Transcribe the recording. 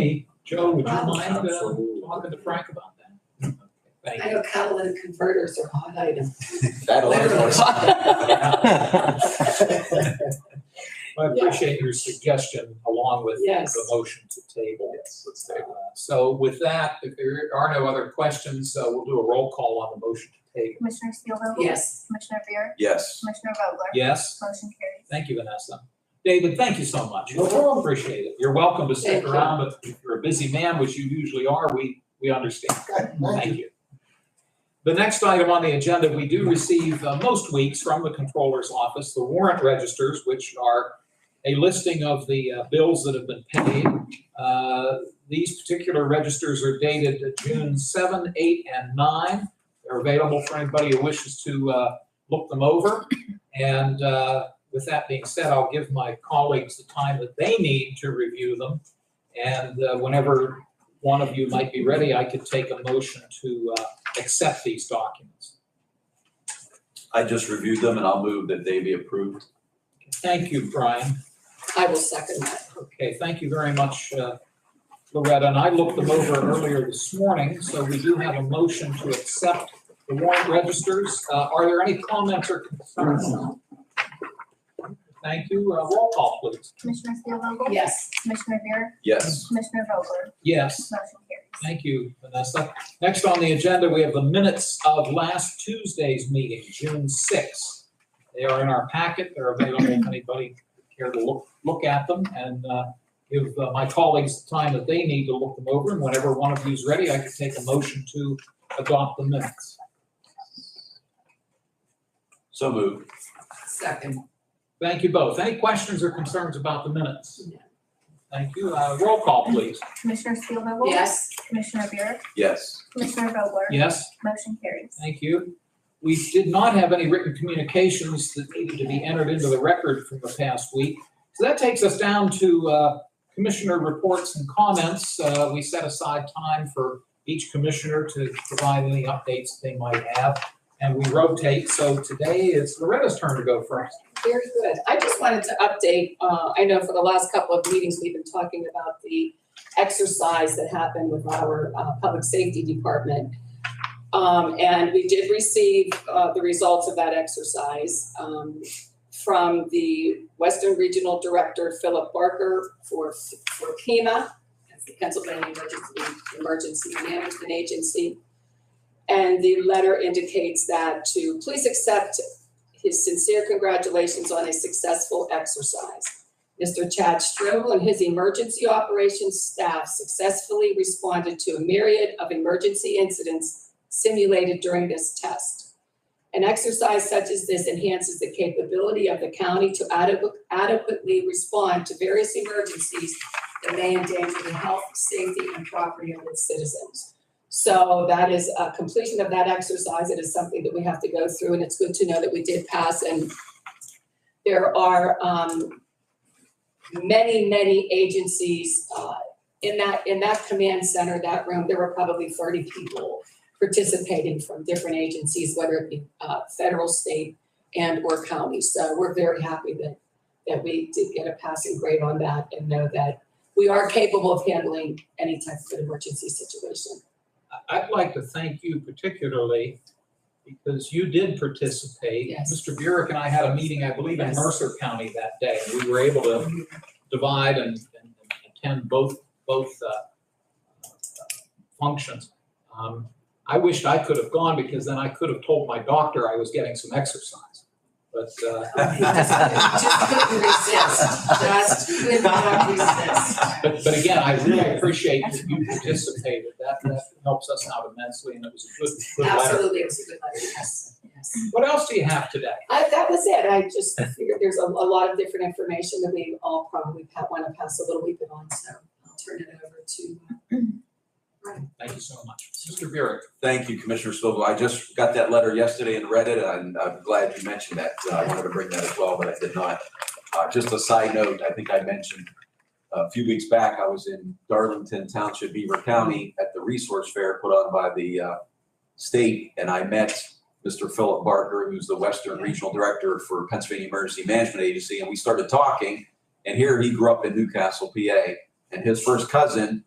Hey, Joe, would you Rob, mind uh, Absolutely. talking to Frank about that? Thank I know catalytic converters are hot items. That Literally. you. I appreciate your suggestion along with Yes. the motion to table. Uh, So with that, if there are no other questions, uh, we'll do a roll call on the motion to table. Commissioner Steelvogel? Yes. Commissioner Rea? Yes. Commissioner Vogler? Yes? Motion carries. Thank you, Vanessa. David, thank you so much. No problem. Appreciate it. You're welcome to stick Thank you. around, but if you're a busy man, which you usually are, we, we understand. Thank you. The next item on the agenda, we do receive uh, most weeks from the Controller's Office, the warrant registers, which are a listing of the uh, bills that have been paid. Uh, These particular registers are dated June 7, 8, and 9. They're available for anybody who wishes to uh, look them over. And uh, with that being said, I'll give my colleagues the time that they need to review them. And uh, whenever one of you might be ready, I could take a motion to uh, accept these documents. I just reviewed them and I'll move that they be approved. Thank you, Brian. I will second that. Okay, thank you very much, uh, Loretta. And I looked them over earlier this morning, so we do have a motion to accept the warrant registers. Uh, Are there any comments or concerns? Thank you. Uh, Roll call, please. Commissioner Steelvogel? Yes. Commissioner Rea? Yes. Commissioner Vogler? Yes. Motion carries. Thank you, Vanessa. Next on the agenda, we have the minutes of last Tuesday's meeting, June sixth. They are in our packet. They're available if anybody care to look, look at them and uh, give uh, my colleagues the time that they need to look them over. And whenever one of you's ready, I can take a motion to adopt the minutes. So moved. Second. Thank you both. Any questions or concerns about the minutes? Thank you. Uh, Roll call, please. Commissioner Steelvogel? Yes. Commissioner Rea? Yes. Commissioner Vogler? Yes? Motion carries. Thank you. We did not have any written communications that needed to be entered into the record from the past week. So that takes us down to uh, commissioner reports and comments. Uh, We set aside time for each commissioner to provide any updates they might have, and we rotate. So today it's Loretta's turn to go first. Very good. I just wanted to update, uh, I know for the last couple of meetings, we've been talking about the exercise that happened with our, uh, public safety department. Um, and we did receive, uh, the results of that exercise, um, from the Western Regional Director, Philip Barker, for, for PEMA, that's the Pennsylvania Emergency, Emergency Management Agency. And the letter indicates that to please accept his sincere congratulations on a successful exercise. Mr. Chad Strobel and his emergency operations staff successfully responded to a myriad of emergency incidents simulated during this test. An exercise such as this enhances the capability of the county to adequ- adequately respond to various emergencies that may endanger the health, safety, and property of its citizens. So that is a completion of that exercise. It is something that we have to go through and it's good to know that we did pass and there are um many, many agencies uh in that, in that command center, that room, there were probably thirty people participating from different agencies, whether it be uh federal, state and or county. So we're very happy that that we did get a passing grade on that and know that we are capable of handling any type of emergency situation. I- I'd like to thank you particularly because you did participate. Yes. Mr. Burek and I had a meeting, I believe, in Yes. Mercer County that day. We were able to divide and and attend both, both uh, functions. Um, I wished I could have gone because then I could have told my doctor I was getting some exercise. But uh, Oh, Just couldn't resist, just could not resist. But, but again, I really appreciate that you participated. That, that helps us out immensely and it was a good, good letter. Absolutely, it was a good letter, yes, yes. What else do you have today? I, that was it, I just figured there's a, a lot of different information that we all probably pa- wanna pass a little bit on, so I'll turn it over to. Thank you so much. Mr. Burek. Thank you, Commissioner Sobel. I just got that letter yesterday and read it, and I'm glad you mentioned that. Uh, I wanted to bring that as well, but I did not. Uh, just a side note, I think I mentioned a few weeks back, I was in Darlington Township, Beaver County, at the resource fair put on by the, uh, state, and I met Mr. Philip Barker, who's the Western Regional Director for Pennsylvania Emergency Management Agency, and we started talking. And here he grew up in Newcastle, PA, and his first cousin